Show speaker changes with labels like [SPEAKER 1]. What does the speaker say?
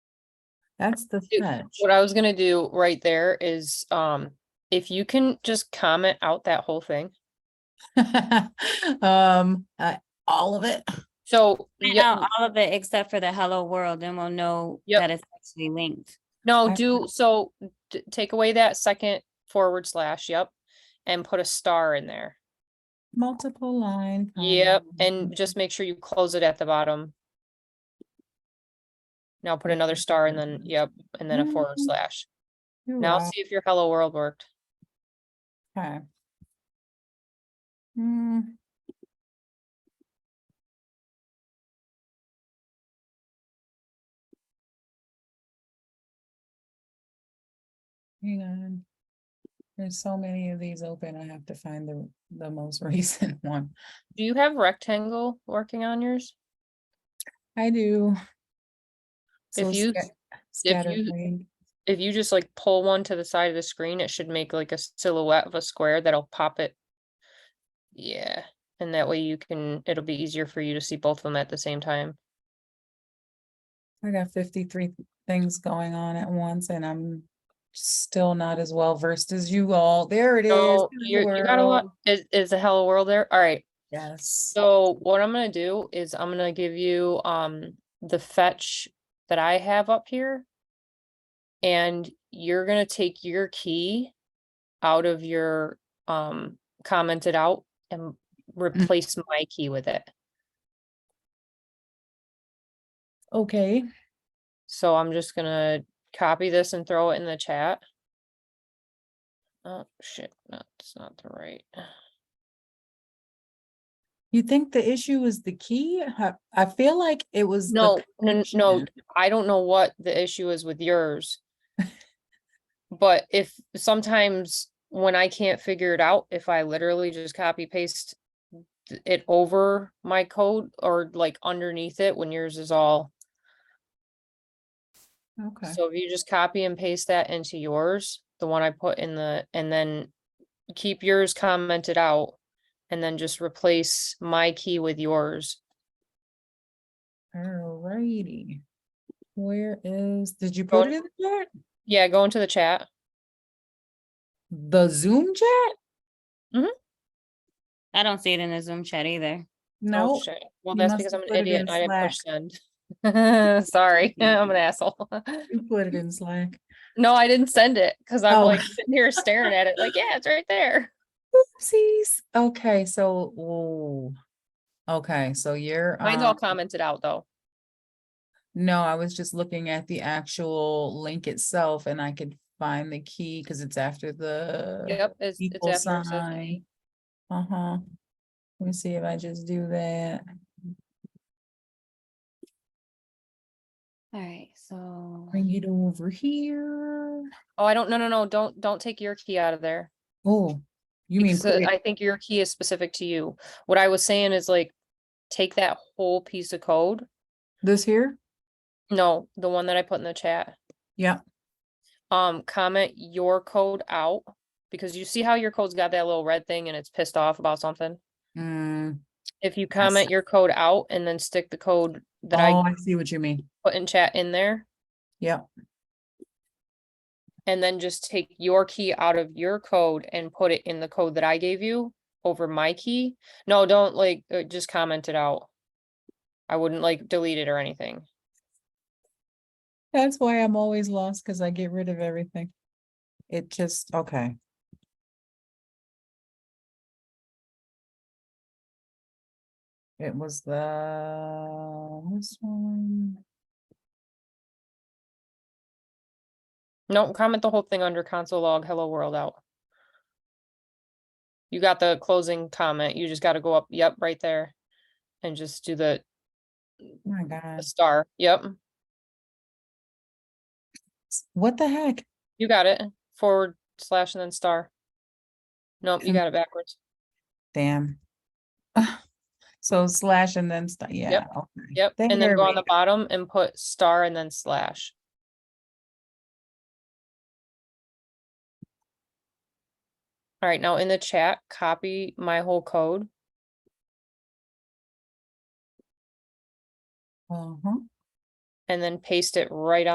[SPEAKER 1] That's the
[SPEAKER 2] Dude,
[SPEAKER 1] fetch.
[SPEAKER 2] What I was gonna do right there is, um, if you can just comment out that whole thing.
[SPEAKER 1] Um, I- all of it.
[SPEAKER 2] So,
[SPEAKER 3] Find
[SPEAKER 2] yeah,
[SPEAKER 3] out all of it except for the hello world and we'll know
[SPEAKER 2] Yep.
[SPEAKER 3] that it's actually linked.
[SPEAKER 2] no,
[SPEAKER 1] I-
[SPEAKER 2] do, so d- take away that second forward slash, yep. And put a star in there.
[SPEAKER 1] Multiple line.
[SPEAKER 2] Yep,
[SPEAKER 1] combination.
[SPEAKER 2] and just make sure you close it at the bottom. Now put another
[SPEAKER 1] Mm-hmm.
[SPEAKER 2] star and then, yep, and then a forward
[SPEAKER 1] Mm.
[SPEAKER 2] slash.
[SPEAKER 1] You're
[SPEAKER 2] Now
[SPEAKER 1] right.
[SPEAKER 2] see if your hello world worked.
[SPEAKER 1] Okay. Hmm. Hang on. There's so many of these open, I have to find the, the most recent one.
[SPEAKER 2] Do you have rectangle working on yours?
[SPEAKER 1] I do. So
[SPEAKER 2] If you-
[SPEAKER 1] sca-
[SPEAKER 2] you-
[SPEAKER 1] Scatterbrained.
[SPEAKER 2] If you just like pull one to the side of the screen, it should make like a silhouette of a square that'll pop it. Yeah, and that way you can, it'll be easier for you to see both of them at the same time.
[SPEAKER 1] I got fifty-three things going on at once and I'm still not as well versed as you all. There it is.
[SPEAKER 2] So
[SPEAKER 1] hello
[SPEAKER 2] you're, you got a lot,
[SPEAKER 1] world.
[SPEAKER 2] is, is the hello world there? All right.
[SPEAKER 1] Yes.
[SPEAKER 2] So what I'm gonna do is I'm gonna give you um the fetch that I have up here. And you're gonna take your key out of your um commented out
[SPEAKER 1] Mm.
[SPEAKER 2] and replace my key with it.
[SPEAKER 1] Okay.
[SPEAKER 2] So I'm just gonna copy this and throw it in the chat. Oh shit, no, it's not the right.
[SPEAKER 1] You think the issue is the key? I- I feel like it was. the
[SPEAKER 2] No, no, n- no,
[SPEAKER 1] connection.
[SPEAKER 2] I don't know what the issue is with yours. But if sometimes when I can't figure it out, if I literally just copy paste th- it over my code or like underneath it when yours is all.
[SPEAKER 1] Okay,
[SPEAKER 2] So if you just copy and paste that into yours, the one I put in the, and then keep yours commented out. And then just replace my key with yours.
[SPEAKER 1] alrighty. Where is, did you
[SPEAKER 2] Go
[SPEAKER 1] put it in the chat?
[SPEAKER 2] Yeah, go into the chat.
[SPEAKER 1] The Zoom
[SPEAKER 2] Oh,
[SPEAKER 1] chat?
[SPEAKER 3] I don't see it in the Zoom chat either.
[SPEAKER 2] Oh,
[SPEAKER 1] No,
[SPEAKER 2] shit. Well,
[SPEAKER 1] you
[SPEAKER 2] that's
[SPEAKER 1] must
[SPEAKER 2] because I'm
[SPEAKER 1] have
[SPEAKER 2] an
[SPEAKER 1] put it
[SPEAKER 2] idiot.
[SPEAKER 1] in
[SPEAKER 2] and I didn't push send. Sorry, I'm an asshole.
[SPEAKER 1] you put it in Slack.
[SPEAKER 2] No, I didn't send it because I'm
[SPEAKER 1] Oh.
[SPEAKER 2] like sitting here staring at it like, yeah, it's right there.
[SPEAKER 1] Oopsies. Okay, so, whoa. Okay, so you're.
[SPEAKER 2] Mine's all
[SPEAKER 1] um,
[SPEAKER 2] commented out though.
[SPEAKER 1] No, I was just looking at the actual link itself and I could find the key because it's after the.
[SPEAKER 2] Yep, it's, it's
[SPEAKER 1] equal
[SPEAKER 2] after. it says-
[SPEAKER 1] sign. Uh-huh. Let me see if I just do that.
[SPEAKER 3] All right, so
[SPEAKER 1] Bring it over here.
[SPEAKER 2] Oh, I don't, no, no, no, don't, don't take your key out of there.
[SPEAKER 1] Oh, you mean,
[SPEAKER 2] because, uh,
[SPEAKER 1] put it-
[SPEAKER 2] I think your key is specific to you. What I was saying is like, take that whole piece of code.
[SPEAKER 1] this here?
[SPEAKER 2] No, the one that I put in the chat.
[SPEAKER 1] Yeah,
[SPEAKER 2] um, comment your code out because you see how your code's got that little red thing and it's pissed off about something.
[SPEAKER 1] mm,
[SPEAKER 2] If you comment your code out and then stick the code that
[SPEAKER 1] oh,
[SPEAKER 2] I
[SPEAKER 1] I see what you mean.
[SPEAKER 2] put in chat in there
[SPEAKER 1] Yeah,
[SPEAKER 2] and then just take your key out of your code and put it in the code that I gave you over my key. No, don't like, uh, just comment it out. I wouldn't like delete it or anything.
[SPEAKER 1] that's why I'm always lost because I get rid of everything. It just, okay. It was the, this one,
[SPEAKER 2] No, comment the whole thing under console log, hello world out. You got the closing comment. You just gotta go up, yep, right there. And just do the,
[SPEAKER 1] oh my
[SPEAKER 2] the
[SPEAKER 1] God,
[SPEAKER 2] star. Yep,
[SPEAKER 1] what the heck?
[SPEAKER 2] you got it. Forward slash and then star. Nope, you
[SPEAKER 1] Com-
[SPEAKER 2] got it backwards.
[SPEAKER 1] Damn. So slash and then, sta- yeah. okay.
[SPEAKER 2] Yep, and then
[SPEAKER 1] There
[SPEAKER 2] go
[SPEAKER 1] we
[SPEAKER 2] on the bottom and put star and then slash. All right, now in the chat, copy my whole code.
[SPEAKER 1] Uh-huh.
[SPEAKER 2] and then paste it right